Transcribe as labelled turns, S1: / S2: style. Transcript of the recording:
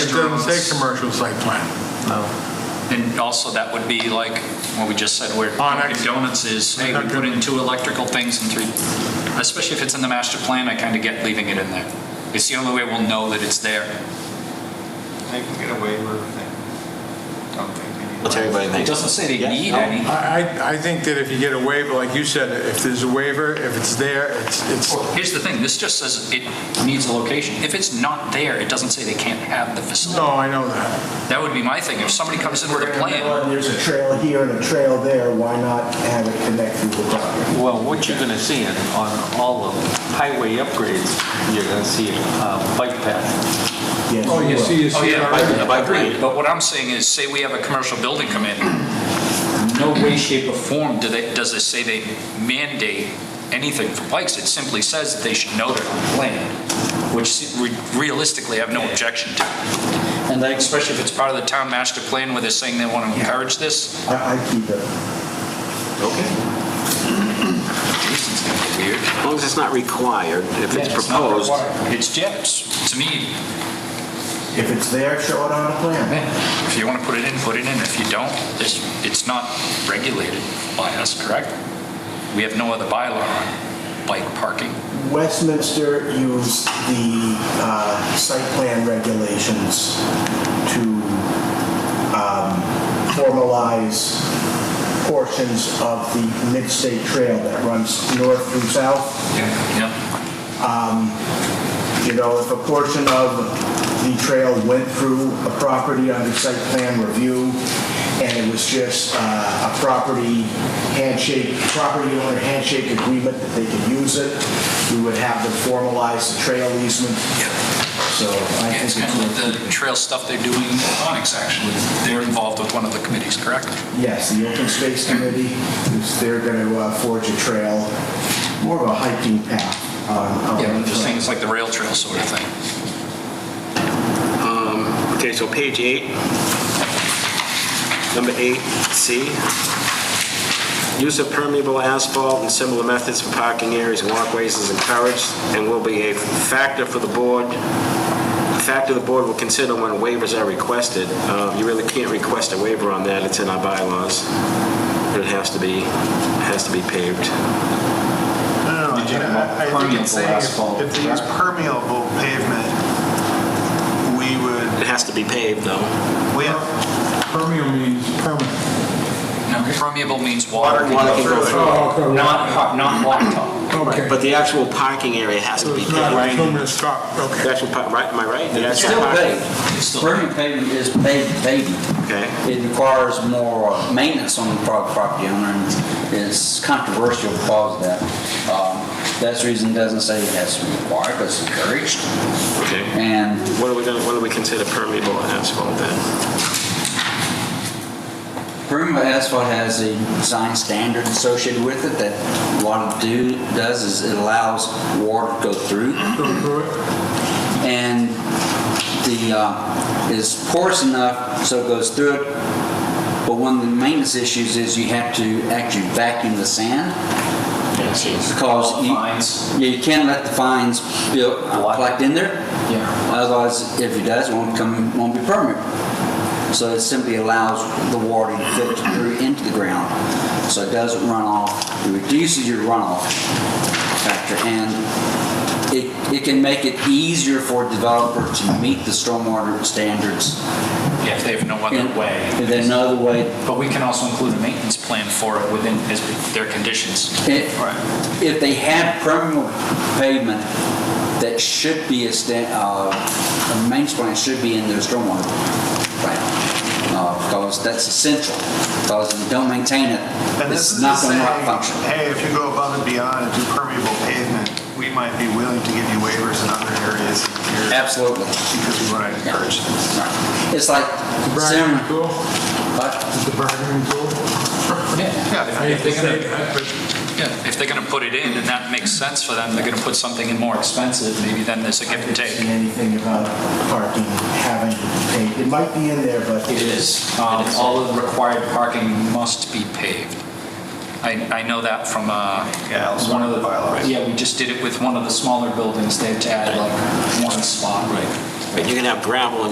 S1: It doesn't say
S2: restaurants.
S1: commercial site plan.
S3: No.
S2: And also, that would be like what we just said, where
S1: Onyx.
S2: Dunkin' Donuts is, hey, we
S1: Okay.
S2: put in two electrical things and three, especially if it's in the master plan, I kind of get leaving it in there. It's the only way we'll know that it's there.
S4: They can get away with it. Don't think they need.
S3: What's everybody
S2: It
S3: think?
S2: doesn't say they
S3: Yeah,
S2: need
S3: no.
S2: any.
S1: I, I- I think that if you get a waiver, like you said, if there's a waiver, if it's there, it's, it's,
S2: Here's the thing, this just says it needs a location. If it's not there, it doesn't say they can't have the facility.
S1: no, I know that.
S2: That would be my thing, if somebody comes in with a plan,
S5: There's a trail here and a trail there, why not have it connect through the property?
S3: Well, what you're going to see in, on all of highway upgrades, you're going to see a bike path.
S5: Yes,
S1: Oh, you
S5: will.
S1: see, you see. it already.
S3: Bike- bike
S2: Agreed,
S3: lane.
S2: but what I'm saying is, say we have a commercial building come in, no way, shape, or form do they, does it say they mandate anything for bikes. It simply says that they should know they're on the plan, which se- re- realistically, I have no objection to.
S3: And they,
S2: Especially if it's part of the town master plan where they're saying they want to encourage this.
S5: I, I keep it.
S3: okay.
S2: Jason's gonna get weird.
S3: As long as it's not required, if it's
S2: Yeah, not
S3: proposed.
S2: required. It's, yeah, it's- to me,
S5: If it's there, show it on the plan.
S2: if you want to put it in, put it in. If you don't, it's, it's not regulated by us, correct? We have no other bylaw on bike parking.
S5: Westminster used the uh, site plan regulations to um, formalize portions of the mid-state trail that runs north through south.
S2: Yeah.
S5: You know, if a portion of the trail went through a property under site plan review, and it was just uh, a property handshake, property owner handshake agreement that they could use it, we would have them formalize the trail easement. So I
S2: Yeah,
S5: think
S2: It's
S5: it's
S2: kind of like the
S5: worth
S2: trail stuff they're doing in Onyx, actually. They're involved with one of the committees, correct?
S5: it. Yes, the open space committee, is they're going to forge a trail, more of a hiking path. on- on-
S2: I'm just saying, it's like the rail trail sort of thing.
S3: Okay, so page eight, number eight, C. Use of permeable asphalt and similar methods for parking areas and walkways is encouraged and will be a factor for the board, a factor the board will consider when waivers are requested. Uh, You really can't request a waiver on that, it's in our bylaws, but it has to be, has to be paved.
S4: No,
S2: Did you have
S4: I I think
S2: permeable
S4: it's saying
S2: asphalt,
S4: if- if they use permeable pavement, we would,
S3: It has to be paved, though.
S4: we
S1: Permeable means permanent.
S2: Now, permeable means water,
S3: Water can go through.
S1: Oh, okay.
S2: not, hot- not blacktop.
S1: Okay.
S3: But the actual parking area has to be
S1: It's
S3: paved.
S1: not a permanent stop, okay.
S3: The actual, par- right, am I right? The
S6: It's
S3: actual
S6: still
S3: parking-
S6: paved.
S2: It's still-
S6: Permanent pavement is paved, paved.
S3: Okay.
S6: It requires more uh, maintenance on the pro- property owner, and it's controversial because of that. Um, That's the reason it doesn't say it has to be required, but it's encouraged.
S3: Okay.
S6: And
S3: What are we going, what do we consider permeable asphalt then?
S6: permanent asphalt has a design standard associated with it that what it do, does is it allows water to go through. And the, uh, is porous enough so it goes through it. But one of the maintenance issues is you have to actually vacuum the sand because you,
S2: Fines.
S6: yeah, you can't let the fines build, collect in there.
S2: Yeah.
S6: Otherwise, if it does, it won't come, won't be permanent. So it simply allows the water to filter through into the ground, so it doesn't run off. It reduces your runoff factor, and it, it can make it easier for a developer to meet the stormwater standards.
S2: Yeah, if they have no other
S6: in-
S2: way.
S6: If there's another way,
S2: But we can also include a maintenance plan for it within his- their conditions.
S6: If,
S2: Right.
S6: if they have permanent pavement, that should be a sta uh, a maintenance plan should be in their stormwater plan. Uh, because that's essential, because if you don't maintain it,
S4: And this
S6: it's
S4: is
S6: not gonna
S4: saying,
S6: work function.
S4: hey, if you go above and beyond and do permeable pavement, we might be willing to give you waivers in other areas here
S6: Absolutely.
S4: because we want to
S6: Yeah.
S4: encourage this.
S6: Right. It's like,
S1: Bargaining
S6: Zimmerman,
S1: tool,
S6: but
S1: the bargaining tool.
S2: Yeah,
S1: I
S2: if
S1: hate to
S2: they're
S1: say
S2: gonna,
S1: that, but
S2: yeah, if they're gonna put it in and that makes sense for them, they're gonna put something in more expensive, maybe then there's a give and take.
S5: And anything about parking having paved, it might be in there, but.
S2: It is. Um, All of the required parking must be paved. I, I know that from, uh,
S4: Yeah, also
S2: one of the,
S4: bylaws.
S2: yeah, we just did it with one of the smaller buildings. They had to add like one spot. Right.
S3: You're going to have gravel in